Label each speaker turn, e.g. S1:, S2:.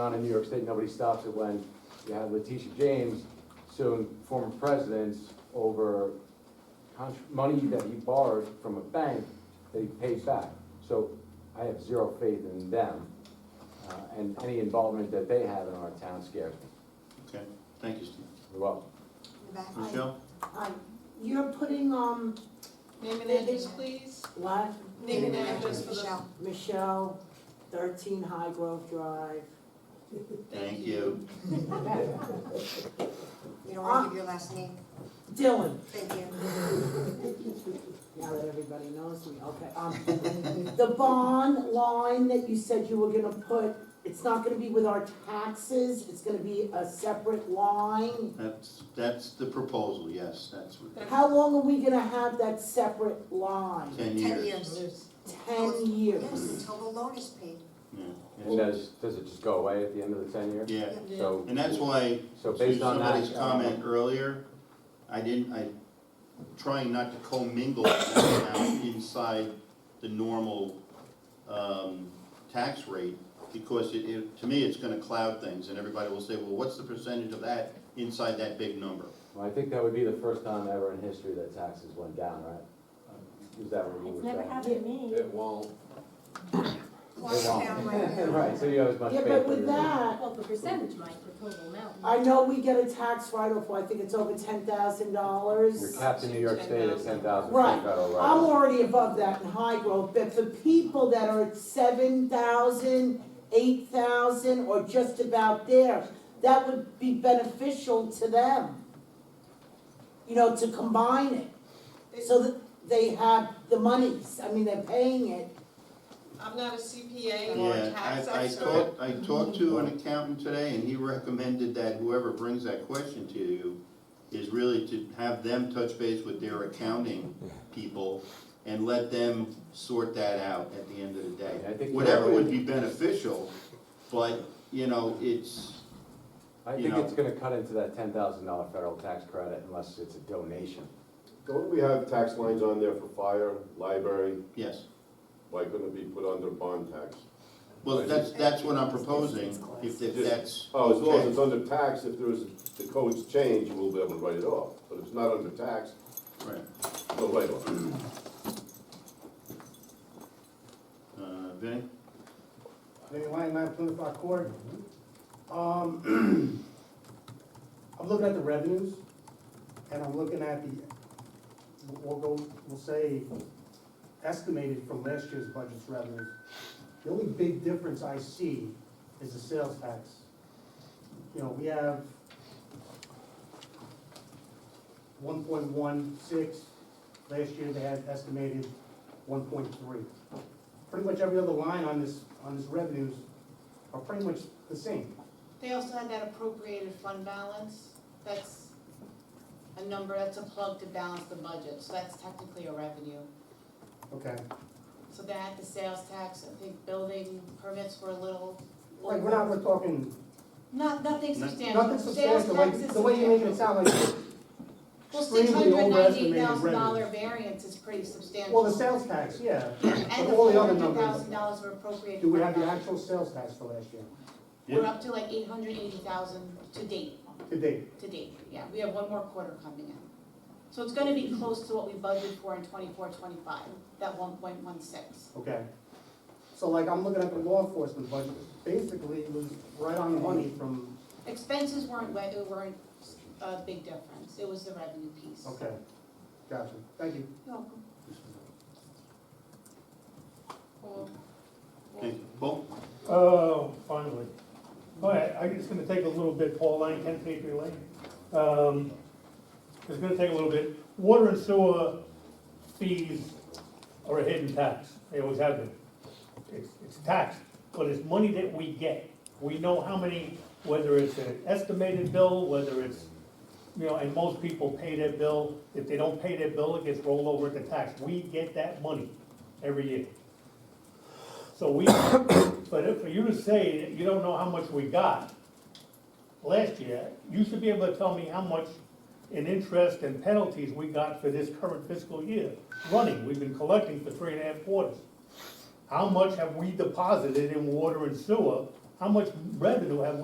S1: on in New York State, nobody stops it when you have Letitia James suing former presidents over contr- money that he borrowed from a bank that he paid back. So I have zero faith in them, uh, and any involvement that they have in our town scares me.
S2: Okay, thank you, Steve.
S1: Well,
S2: Michelle?
S3: Uh, You're putting, um,
S4: Name and address, please.
S3: what?
S4: Name and address for the.
S3: Michelle. Michelle, thirteen High Grove Drive.
S2: Thank you.
S5: You don't want to give your last name?
S3: Dylan,
S5: Thank you.
S3: now that everybody knows me, okay, um, the bond line that you said you were gonna put, it's not gonna be with our taxes, it's gonna be a separate line.
S2: That's, that's the proposal, yes, that's what,
S3: How long are we gonna have that separate line?
S2: ten
S5: Ten
S2: years.
S5: years.
S3: Ten years.
S5: Yes, until the loan is paid.
S2: Yeah,
S1: and
S2: yes.
S1: does, does it just go away at the end of the ten year?
S2: Yeah,
S4: Yeah.
S1: So.
S2: and that's why,
S1: So
S2: to
S1: based on that. uh,
S2: somebody's comment earlier, I didn't, I, trying not to commingle that amount inside the normal, um, tax rate, because it, it, to me, it's gonna cloud things, and everybody will say, well, what's the percentage of that inside that big number?
S1: Well, I think that would be the first time ever in history that taxes went down, right? Is that where we
S6: It's
S1: were
S6: never
S1: going?
S6: happened to me.
S7: It won't.
S5: Close down right now.
S1: Right, so you have as much
S3: Yeah,
S1: faith.
S3: but
S1: in
S3: with
S1: your-
S3: that,
S6: Well, the percentage might, the total amount.
S3: I know we get a tax write-off, I think it's over ten thousand dollars.
S1: You're capped in New York State at ten thousand for
S3: Right.
S1: federal
S3: I'm
S1: right.
S3: already above that in high growth, but for people that are at seven thousand, eight thousand, or just about there, that would be beneficial to them. You know, to combine it, so that they have the monies, I mean, they're paying it,
S4: I'm not a CPA or a
S2: Yeah,
S4: tax
S2: I, I
S4: expert.
S2: talked, I talked to an accountant today, and he recommended that whoever brings that question to you is really to have them touch base with their accounting people and let them sort that out at the end of the
S1: I
S2: day.
S1: think
S2: Whatever
S1: that would-
S2: would be beneficial, but, you know, it's,
S1: I
S2: you
S1: think
S2: know.
S1: it's gonna cut into that ten thousand dollar federal tax credit unless it's a donation.
S8: Don't we have tax lines on there for fire, library,
S2: yes.
S8: why couldn't it be put under bond tax?
S2: Well, that's, that's what I'm proposing, if, if that's.
S8: Oh, as long as it's
S2: okay.
S8: under tax, if there was, the codes change, you will be able to write it off, but if it's not under tax,
S2: Right.
S8: no write-off.
S2: Uh, Vinnie?
S9: Vinnie Lang, nine Plymouth Rock Court. Um, I'm looking at the revenues, and I'm looking at the, we'll go, we'll say, estimated from last year's budget's revenues. The only big difference I see is the sales tax. You know, we have one point one six, last year they had estimated one point three pretty much every other line on this, on this revenues are pretty much the same.
S4: They also had that appropriated fund balance. That's a number, that's a plug to balance the budget, so that's technically a revenue.
S9: Okay.
S4: So that, the sales tax, I think building permits were a little.
S9: Like, we're not, we're talking,
S4: Not, nothing
S2: Nothing
S4: substantial.
S9: nothing
S4: Sales
S9: substantial,
S4: tax
S9: like,
S4: is
S9: the way you're making it
S4: substantial.
S9: sound like,
S4: Well, six
S9: extremely
S4: hundred ninety-eight
S9: overestimated
S4: thousand dollar
S9: revenues.
S4: variance is pretty substantial.
S9: Well, the sales tax, yeah,
S4: And
S9: but
S4: the
S9: all
S4: four
S9: the other
S4: hundred
S9: numbers,
S4: thousand dollars were appropriated.
S9: do we
S4: for
S9: have the
S4: that.
S9: actual sales tax for last year,
S4: We're up to like eight hundred eighty thousand to date,
S9: to date?
S4: to date, yeah, we have one more quarter coming in. So it's gonna be close to what we budgeted for in twenty-four, twenty-five, that one point one six.
S9: Okay. So like, I'm looking at the law enforcement budget, basically, it was right on the money from,
S4: Expenses weren't, wa- uh, weren't a big difference, it was the revenue piece.
S9: okay, gotcha, thank you.
S4: You're welcome. Well,
S2: Thank you. Paul?
S10: Oh, finally. All right, I it's gonna take a little bit, Paul Lane, ten Patriot Lane. Um, it's gonna take a little bit. Water and sewer fees are a hidden tax. They always have been. It's, it's a tax, but it's money that we get. We know how many, whether it's an estimated bill, whether it's, you know, and most people pay their bill. If they don't pay their bill, it gets rolled over at the tax. We get that money every year. So we, but if- for you to say that you don't know how much we got last year, you should be able to tell me how much in interest and penalties we got for this current fiscal year running. We've been collecting for three and a half quarters. How much have we deposited in water and sewer?
S9: how much revenue have we?